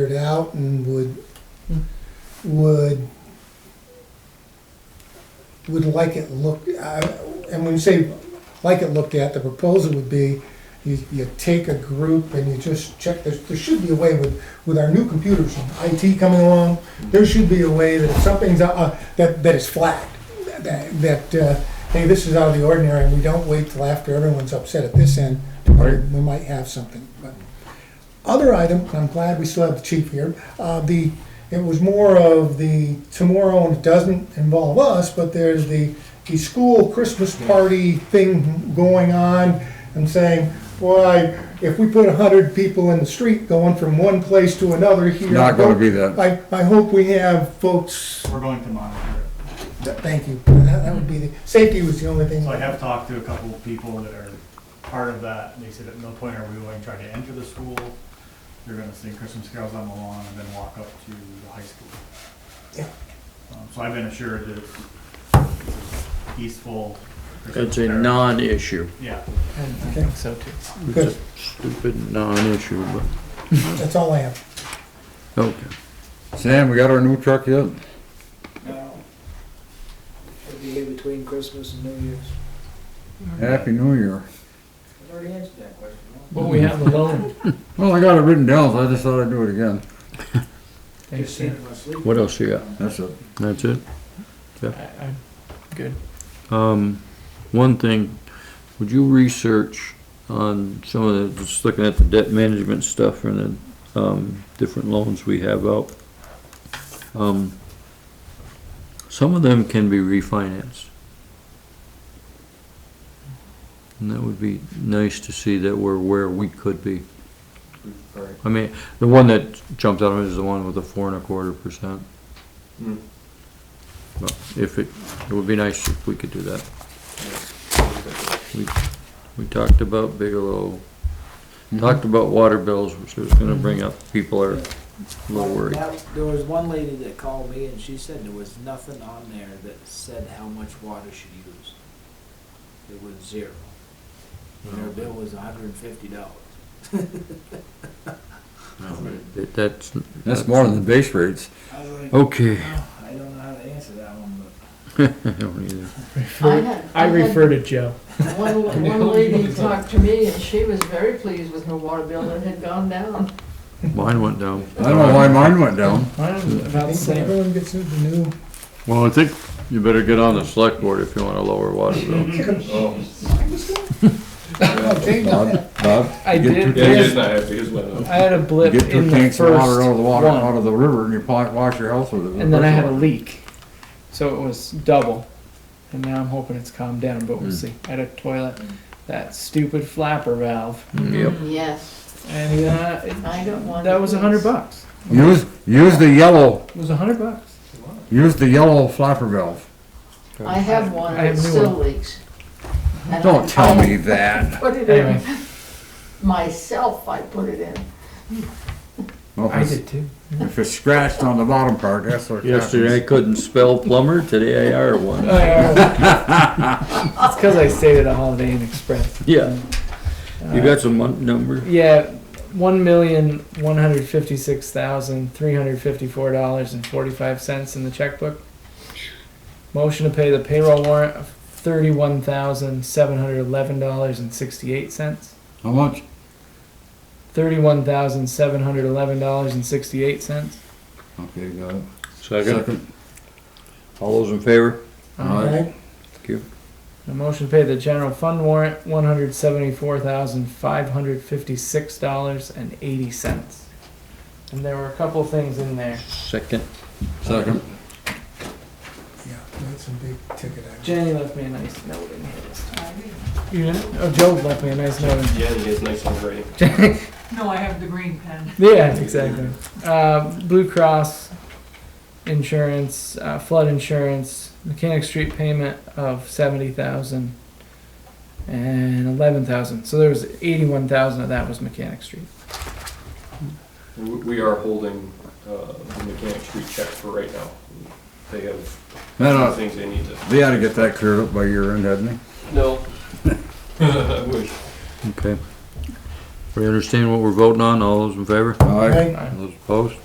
it out and would, would, would like it looked, uh, and when you say like it looked at, the proposal would be, you, you take a group and you just check, there, there should be a way with, with our new computers, and IT coming along, there should be a way that if something's, uh, uh, that, that is flagged, that, that, uh, hey, this is out of the ordinary, and we don't wait till after everyone's upset at this end, Right. we might have something, but. Other item, and I'm glad we still have the chief here, uh, the, it was more of the tomorrow, and it doesn't involve us, but there's the, the school Christmas party thing going on, and saying, why, if we put a hundred people in the street going from one place to another here. Not gonna be that. I, I hope we have folks, We're going to monitor it. th- thank you, that that would be the, safety was the only thing. So I have talked to a couple of people that are part of that, and they said at no point are we going to try to enter the school. They're gonna sing Christmas carols on the lawn and then walk up to the high school. Yeah. Um, So I've been assured that it's peaceful. Christmas It's a fair. non-issue. Yeah, Okay, So too. It's Good. a stupid non-issue, but, that's all I have. okay. Sam, we got our new truck yet? No. Should be here between Christmas and New Year's. Happy New Year. I've already answered that question. But we have the loan. Well, I got it written down, so I just thought I'd do it again. Thanks, seen sir. it in my sleep. What else you got? That's it. That's it? I, I'm good. Um, one thing, would you research on some of the, just looking at the debt management stuff and the, um, different loans we have out? Um, some of them can be refinanced. And that would be nice to see that we're where we could be. I mean, the one that jumped out of it is the one with the four and a quarter percent. Hmm. But if it, it would be nice if we could do that. We, we talked about Bigelow, talked about water bills, which was gonna bring up, people are a little worried. That- There was one lady that called me and she said there was nothing on there that said how much water she used. It was zero. And Oh, her bill was hundred and fifty dollars. That- That's. That's more than the base rates. I was like, Okay. "Oh, I don't know how to answer that one, I don't either. I had, I I refer to had, Joe. one, one lady talked to me and she was very pleased with her water bill and it had gone down. Mine went down. I don't know why mine went down. Mine's about the same. Everyone gets the new, Well, I think you better get on the select board if you wanna lower water bills. oh, Jane, Bob, Bob, I you get did. two Yeah, tanks- his not happy, his went up. I had a you blip Get in two the tanks first of water out of the water, out one, of the river, and you pot- wash your house with it. and then I had a leak, so it was double. And now I'm hoping it's calmed down, but Hmm. we'll see. I had a toilet, that stupid flapper valve, Yep. Yes, and uh, it, I don't want. that was a hundred bucks. Use, use the yellow, It was a hundred bucks. use the yellow flapper valve. I have one I and have it new still one. leaks. And I- Don't tell I me that. Put it Anyway, in, myself, I put it in. Well, I if did it's, too. if it's scratched on the bottom part, that's what Yesterday I happens. couldn't spell plumber, today I are one. it's because Uh, I stayed at a Holiday Inn Express. Yeah, Uh, you got some mon- number? Yeah, one million one hundred fifty-six thousand three hundred fifty-four dollars and forty-five cents in the checkbook. Motion to pay the payroll warrant of thirty-one thousand seven hundred eleven dollars and sixty-eight cents. How much? Thirty-one thousand seven hundred eleven dollars and sixty-eight cents. Okay, got it. Second. All those in favor? Alright. A motion to pay the general fund warrant one hundred seventy-four thousand five hundred fifty-six dollars and eighty cents. And there were a couple things in there. Second. Second. Yeah, that's some big ticket items. Jenny left me a nice note in here this time. You didn't? Oh, Joe left me a nice note. in- Yeah, he is nice and gray. No, I have the green pen. Yeah, exactly. Uh, Blue Cross insurance, uh, flood insurance, mechanic street payment of seventy thousand and eleven thousand. So there was eighty-one thousand of that was mechanic street. We we are holding uh, the mechanic street check for right now. They have No, some no, things they need to. they ought to get that cleared up by year end, hadn't they? No. I wish. Okay. We understand what we're voting on, all those in favor? Aye. Right? Those opposed?